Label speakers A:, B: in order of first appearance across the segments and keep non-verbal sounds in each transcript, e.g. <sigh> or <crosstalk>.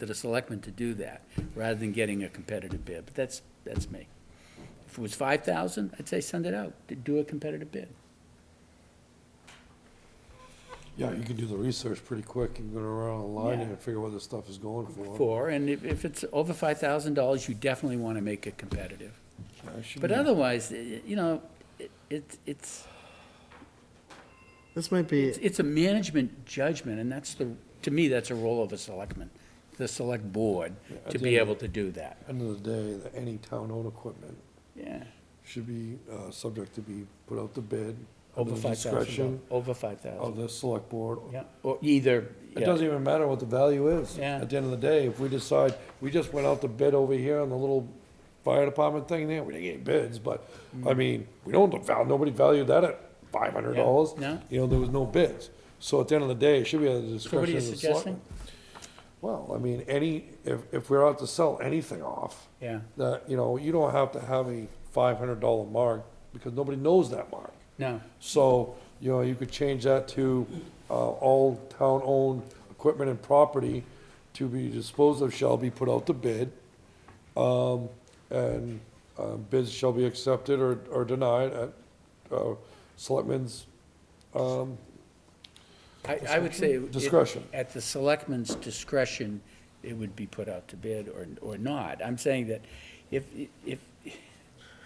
A: to the selectmen to do that, rather than getting a competitive bid, but that's, that's me. If it was five thousand, I'd say send it out, to do a competitive bid.
B: Yeah, you can do the research pretty quick. You can go around online
A: Yeah.
B: and figure what this stuff is going for.
A: For, and if, if it's over five thousand dollars, you definitely wanna make it competitive.
B: I should
A: But
B: be-
A: otherwise, i- you know, it, it's- it's,
C: This might be,
A: it's, it's a management judgment, and that's the, to me, that's a role of a selectman, the select board, to be able to do that,
B: End of the day, the- any town-owned equipment
A: yeah.
B: should be, uh, subject to be put out to bid. under
A: Over
B: the
A: five thousand,
B: discretion
A: over five thousand,
B: Of the select board.
A: yeah, or either,
B: It doesn't
A: yeah,
B: even matter what the value is.
A: Yeah.
B: At the end of the day, if we decide, we just went out to bid over here on the little fire department thing there, we didn't get any bids, but,
A: Mm-hmm.
B: I mean, we don't, val- nobody valued that at five hundred dollars.
A: Yeah, no.
B: You know, there was no bids. So at the end of the day, it should be at the
A: so what are
B: discretion
A: you
B: of the
A: suggesting?
B: selectmen. Well, I mean, any, if, if we're out to sell anything off,
A: Yeah,
B: that, you know, you don't have to have a five hundred dollar mark, because nobody knows that mark.
A: no,
B: So, you know, you could change that to, uh, all town-owned equipment and property to be disposed of shall be put out to bid. Um, and, uh, bids shall be accepted or, or denied at, uh, selectmen's, um,
A: I, I would say. it-
B: Discretion.
A: At the selectman's discretion, it would be put out to bid or, or not, I'm saying that if, if,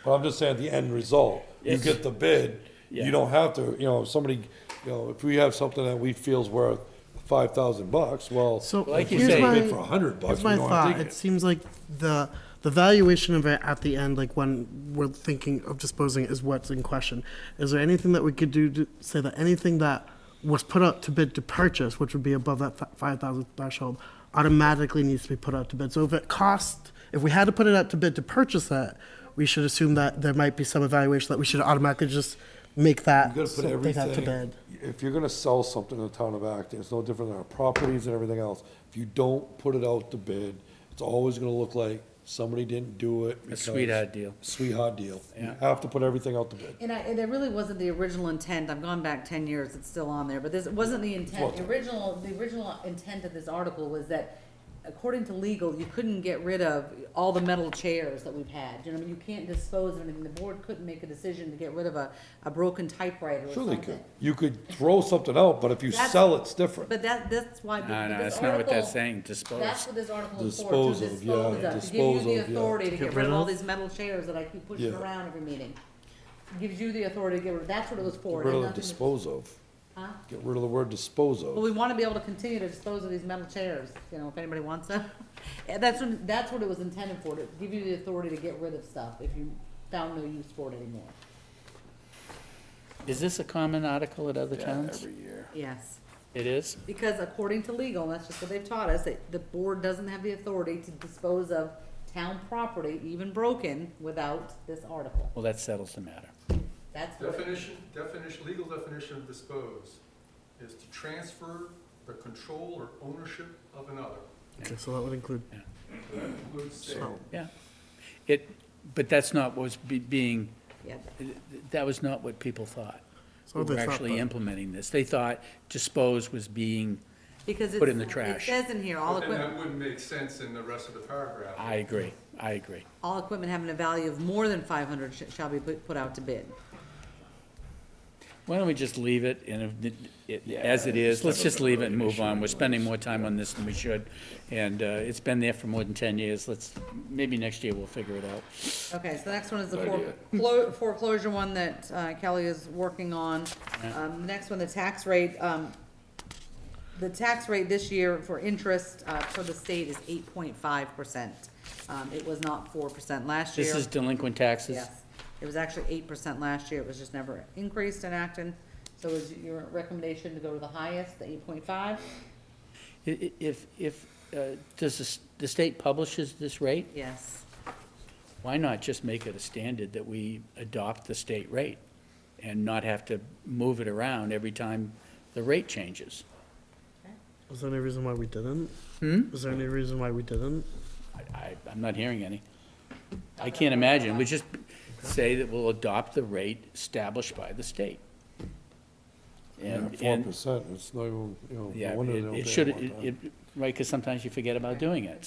B: But I'm just saying the end result, you
A: Yes.
B: get the bid,
A: Yeah.
B: you don't have to, you know, if somebody, you know, if we have something that we feel's worth five thousand bucks, well.
C: so
A: Like you
C: here's
A: say-
C: my,
B: Bid for a hundred bucks,
C: here's
B: we
C: my
B: don't have to
C: thought.
B: take
C: It
B: it.
C: seems like the, the valuation of it at the end, like when we're thinking of disposing is what's in question. Is there anything that we could do to say that anything that was put out to bid to purchase, which would be above that fi- 5,000 threshold, automatically needs to be put out to bid? So if it cost, if we had to put it out to bid to purchase that, we should assume that there might be some evaluation that we should automatically just make
B: You
C: that.
B: gotta put
C: something out to
B: everything,
C: bid.
B: if you're gonna sell something in the town of Acton, it's no different than our properties and everything else. If you don't put it out to bid, it's always gonna look like somebody didn't do it. because-
A: sweetheart deal.
B: Sweetheart deal. You have to put everything out to bid.
D: And I, and it really wasn't the original intent, I've gone back ten years, it's still on there, but this, it wasn't the intent, the original, the original intent of this article was that according to legal, you couldn't get rid of all the metal chairs that we've had, you know, I mean, you can't dispose of anything, the board couldn't make a decision to get rid of a, a broken typewriter or
B: Sure they could.
D: something.
B: You could throw something out, but if you
D: That's-
B: sell, it's different.
D: But that, that's why.
A: no,
D: th-
A: no,
D: this
A: that's not what that's
D: article-
A: saying, dispose.
D: That's what this article is for, to
B: Dispose of,
D: dispose
B: yeah,
D: of, to give you
B: dispose
D: the
B: of, yeah.
D: authority to get rid of all these metal chairs that I keep pushing
B: Yeah.
D: around every meeting. Gives you the authority to get rid, that's what it was for.
B: Get rid
D: and
B: of the
D: nothing to-
B: dispose of.
D: Huh?
B: Get rid of the word dispose
D: But
B: of.
D: we want to be able to continue to dispose of these metal chairs, you know, if anybody wants them. <laughs> And that's what, that's what it was intended for, to give you the authority to get rid of stuff if you found no use for it anymore.
A: Is this a common article at other towns?
B: Every year.
D: Yes.
A: It is?
D: Because according to legal, and that's just what they've taught us, that the board doesn't have the authority to dispose of town property, even broken, without this article.
A: Well, that settles the matter.
D: That's what it-
E: Definition, definition, legal definition of dispose is to transfer the control or ownership of another.
C: Okay, so that would include
E: That includes sale.
A: Yeah. It, but that's not what was be- being,
D: yeah.
A: that was not what people thought.
C: So
A: Who
C: they
A: were
C: thought
A: actually
C: that-
A: implementing this. They thought dispose was being,
D: Because it's.
A: Put it in the trash.
D: It says in here, all
E: But then
D: equipment.
E: that wouldn't make sense in the rest of the paragraph.
A: I agree, I agree.
D: All equipment having a value of more than five hundred shall be put, put out to bid.
A: Why don't we just leave it and if, it- as it is, let's just leave it and move on. We're spending more time on this than we should. And uh, it's been there for more than 10 years. Let's, maybe next year we'll figure it out.
D: Okay, so the next one is the foreclo- foreclosure one that uh, Kelly is working on. Um, the next one, the tax rate, um, the tax rate this year for interest, uh, for the state is eight point five percent. Um, it was not four percent last year.
A: This is delinquent taxes?
D: Yes, it was actually eight percent last year, it was just never increased in Acton. So is your recommendation to go to the highest, the eight point five?
A: I- i- If, if, uh, does the s- the state publishes this rate,
D: Yes.
A: why not just make it a standard that we adopt the state rate and not have to move it around every time the rate changes?
C: Was there any reason why we didn't?
A: Hmm?
C: Was there any reason why we didn't?
A: I- I, I'm not hearing any. I can't imagine. We just say that we'll adopt the rate established by the state. And,
B: Four
A: and,
B: percent, it's not even, you know,
A: yeah,
B: no wonder they
A: it-
B: don't pay
A: it
B: it
A: should,
B: one
A: it,
B: time.
A: it right? Because sometimes you forget about doing it.